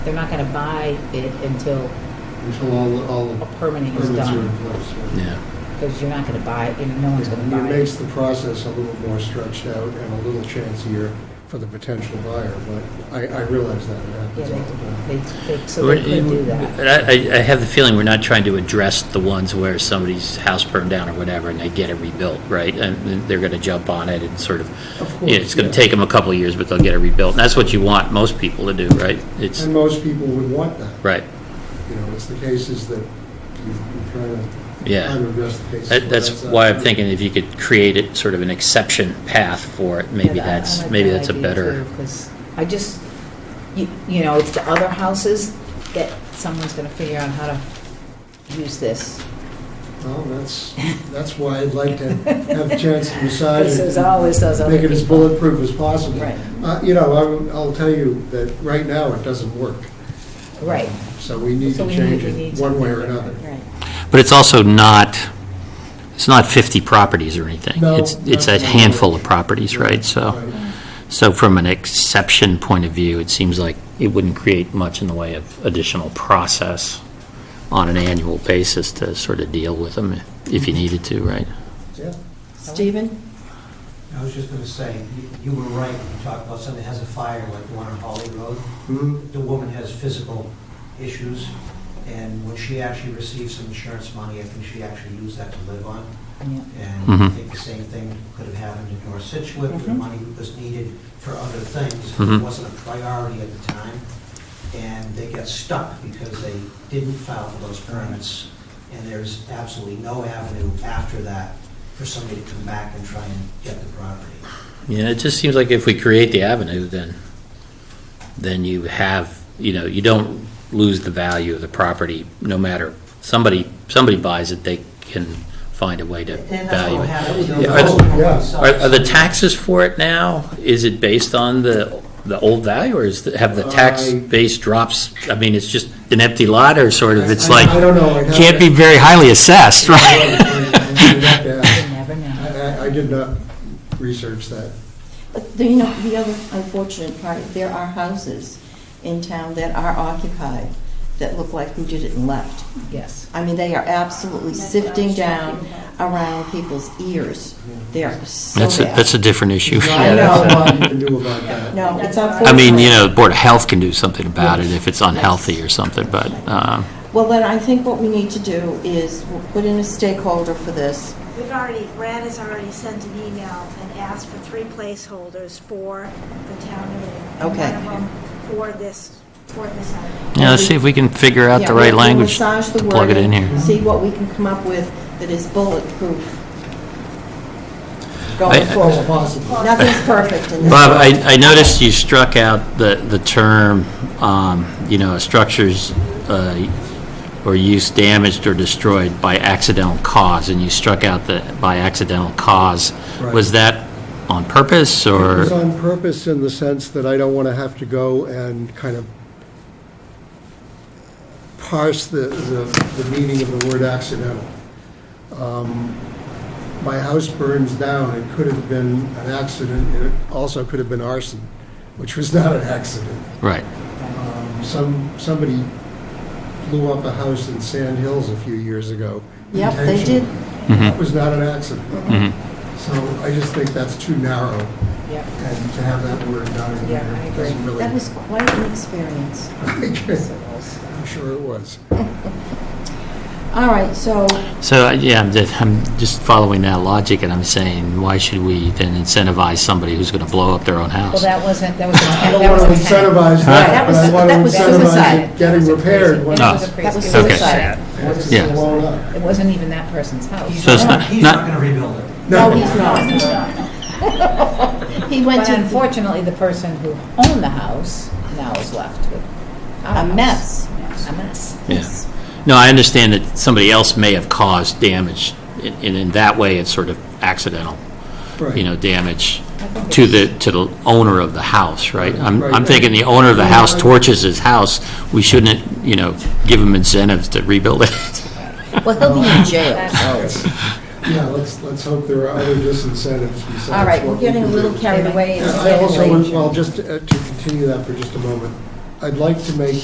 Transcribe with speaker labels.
Speaker 1: They're not going to buy it until
Speaker 2: until all, all
Speaker 1: a
Speaker 2: the
Speaker 1: permitting is
Speaker 2: permits are in
Speaker 1: done,
Speaker 2: place. right?
Speaker 3: Yeah,
Speaker 1: because you're not going to buy it, and no one's going to buy
Speaker 2: It
Speaker 1: it.
Speaker 2: makes the process a little more stretched out and a little chancier for the potential buyer, but I, I realize that it
Speaker 1: Yeah,
Speaker 2: happens all the time.
Speaker 1: they, they, they- so they could do that.
Speaker 3: But I, I- I have the feeling we're not trying to address the ones where somebody's house burned down or whatever, and they get it rebuilt, right? And they're going to jump on it and sort of,
Speaker 2: Of course,
Speaker 3: yeah, it's going
Speaker 2: yeah.
Speaker 3: to take them a couple of years, but they'll get it rebuilt. And that's what you want most people to do, right? It's,
Speaker 2: And most people would want that.
Speaker 3: right,
Speaker 2: You know, it's the cases that you- you're trying to, trying
Speaker 3: yeah.
Speaker 2: to address the cases.
Speaker 3: That-
Speaker 2: where
Speaker 3: That's
Speaker 2: not
Speaker 3: why I'm
Speaker 2: true.
Speaker 3: thinking if you could create it, sort of an exception path for it, maybe
Speaker 1: Yeah, I- I
Speaker 3: that's,
Speaker 1: like
Speaker 3: maybe
Speaker 1: that
Speaker 3: that's a
Speaker 1: idea,
Speaker 3: better,
Speaker 1: too, 'cause I just, you, you know, it's the other houses that someone's going to figure out how to use this.
Speaker 2: Well, that's, that's why I'd like to have a chance to decide.
Speaker 1: This
Speaker 2: it
Speaker 1: is
Speaker 2: and
Speaker 1: always those other
Speaker 2: Make it as
Speaker 1: people.
Speaker 2: bulletproof as possible.
Speaker 1: Right.
Speaker 2: Uh, You know, I'm- I'll tell you that right now, it doesn't work.
Speaker 1: Right.
Speaker 2: So we need
Speaker 1: So
Speaker 2: to
Speaker 1: we
Speaker 2: change
Speaker 1: we need
Speaker 2: it one way or
Speaker 1: something.
Speaker 2: another.
Speaker 1: Right.
Speaker 3: but it's also not, it's not 50 properties or anything.
Speaker 2: No,
Speaker 3: It's, it's a
Speaker 2: that's not
Speaker 3: handful of
Speaker 2: much.
Speaker 3: properties, right? So.
Speaker 2: Right.
Speaker 3: So from an exception point of view, it seems like it wouldn't create much in the way of additional process on an annual basis to sort of deal with them if you needed to, right?
Speaker 2: Yeah.
Speaker 4: Stephen?
Speaker 5: I was just going to say, you- you were right when you talked about somebody has a fire, like the one on Holly Road.
Speaker 2: Mhm.
Speaker 5: The woman has physical issues, and when she actually received some insurance money, I think she actually used that to live on.
Speaker 1: Yeah.
Speaker 5: And I
Speaker 3: Mhm.
Speaker 5: think the same thing could have happened in North Situate, where the
Speaker 1: Mhm.
Speaker 5: money was needed for other things.
Speaker 3: Mhm.
Speaker 5: It wasn't a priority at the time, and they got stuck because they didn't file for those permits, and there's absolutely no avenue after that for somebody to come back and try and get the property.
Speaker 3: Yeah, it just seems like if we create the avenue, then, then you have, you know, you don't lose the value of the property, no matter, somebody, somebody buys it, they can find a way to
Speaker 5: And that's
Speaker 3: value
Speaker 5: what
Speaker 3: it.
Speaker 5: happened.
Speaker 2: Yeah,
Speaker 5: you know,
Speaker 3: are
Speaker 5: those
Speaker 3: the-
Speaker 5: people
Speaker 2: yeah.
Speaker 5: themselves-
Speaker 3: Are, are the taxes for it now, is it based on the, the old value, or is, the- have the tax
Speaker 2: I-
Speaker 3: base drops? I mean, it's just an empty lot, or sort of, it's
Speaker 2: I-
Speaker 3: like,
Speaker 2: I don't know. I'd have
Speaker 3: can't
Speaker 2: to-
Speaker 3: be very highly assessed, right?
Speaker 2: I'd have to ask.
Speaker 1: You never know.
Speaker 2: I I- I did not research that.
Speaker 4: But, the- you know, the other unfortunate part, there are houses in town that are occupied that look like who did it and left.
Speaker 1: Yes.
Speaker 4: I mean, they are absolutely sifting down around people's ears. They are so
Speaker 3: That's a,
Speaker 4: bad.
Speaker 3: that's a different issue.
Speaker 2: There's not a
Speaker 4: I know.
Speaker 2: lot you can do about that.
Speaker 4: No, it's unfortunate.
Speaker 3: I mean, you know, the Board of Health can do something about it if it's unhealthy or something, but, um,
Speaker 4: Well, then I think what we need to do is we'll put in a stakeholder for this.
Speaker 6: We've already, Brad has already sent an email and asked for three placeholders for the town meeting. and
Speaker 4: Okay.
Speaker 6: One of them for this, for this item.
Speaker 3: yeah, let's see if we can figure out
Speaker 4: Yeah,
Speaker 3: the
Speaker 4: we'll-
Speaker 3: right
Speaker 4: we'll
Speaker 3: language
Speaker 4: massage
Speaker 3: to
Speaker 4: the
Speaker 3: plug it in
Speaker 4: wording,
Speaker 3: here.
Speaker 4: See what we can come up with that is bulletproof
Speaker 3: I-
Speaker 4: going
Speaker 3: I-
Speaker 2: False
Speaker 4: forward.
Speaker 2: possible.
Speaker 4: Nothing's perfect in this.
Speaker 3: Bob,
Speaker 4: world.
Speaker 3: I, I noticed you struck out the, the term, um, you know, structures, uh, or use damaged or destroyed by accidental cause, and you struck out the, by accidental cause.
Speaker 2: Right.
Speaker 3: Was that on purpose,
Speaker 2: It was
Speaker 3: or?
Speaker 2: on purpose in the sense that I don't want to have to go and kind of parse the, the, the meaning of the word accidental. Um, My house burns down, it could have been an accident, and it also could have been arson, which was not an accident.
Speaker 3: Right,
Speaker 2: Um, Some, somebody blew up a house in Sand Hills a few years ago.
Speaker 4: Yep, they
Speaker 2: intentionally.
Speaker 4: did.
Speaker 3: Mm-hmm.
Speaker 2: That was not an accident.
Speaker 3: mhm.
Speaker 2: So I just think that's too narrow.
Speaker 1: Yep.
Speaker 2: And to have that word down in
Speaker 1: Yeah,
Speaker 2: there
Speaker 1: I agree.
Speaker 2: doesn't really.
Speaker 4: That was quite an experience.
Speaker 2: I'm sure it was.
Speaker 4: All right, so,
Speaker 3: So, uh, yeah, I'm just, I'm just following that logic, and I'm saying, why should we then incentivize somebody who's gonna blow up their own
Speaker 1: Well,
Speaker 3: house?
Speaker 1: that wasn't, that was,
Speaker 2: I
Speaker 1: that
Speaker 2: don't want to
Speaker 1: was intent.
Speaker 2: incentivize
Speaker 4: That
Speaker 2: that, but
Speaker 4: was-
Speaker 2: I want to
Speaker 4: that was suicide.
Speaker 2: incentivize it
Speaker 1: That
Speaker 2: getting
Speaker 1: was a crazy-
Speaker 2: repaired when
Speaker 3: No.
Speaker 1: That was a
Speaker 4: That was
Speaker 1: crazy.
Speaker 3: Okay.
Speaker 4: suicide.
Speaker 2: it's
Speaker 3: Yeah.
Speaker 2: blown up.
Speaker 1: It wasn't even that person's house.
Speaker 5: He's
Speaker 3: So it's
Speaker 5: not,
Speaker 3: not-
Speaker 5: he's
Speaker 3: not-
Speaker 5: not going to rebuild it.
Speaker 4: no, he's not. He went
Speaker 1: But
Speaker 4: to
Speaker 1: unfortunately, the person who owned the house now is left with
Speaker 4: a mess.
Speaker 1: A mess.
Speaker 3: Yes. No, I understand that somebody else may have caused damage, and and in that way, it's sort of accidental. you know,
Speaker 2: Right.
Speaker 3: damage to the, to the owner of the house, right? I'm, I'm
Speaker 2: Right.
Speaker 3: thinking the owner of the house torches his house, we shouldn't, you know, give him incentives to rebuild it.
Speaker 4: Well, he'll be in jail.
Speaker 2: It's- Yeah, let's, let's hope there are other disincentives besides.
Speaker 4: All right,
Speaker 2: what
Speaker 4: we're
Speaker 2: we
Speaker 4: getting a
Speaker 2: can
Speaker 4: little
Speaker 2: do.
Speaker 4: carried away.
Speaker 2: And
Speaker 4: and
Speaker 2: I
Speaker 4: getting
Speaker 2: also,
Speaker 4: late.
Speaker 2: would- well, just to uh, to continue that for just a moment, I'd like to make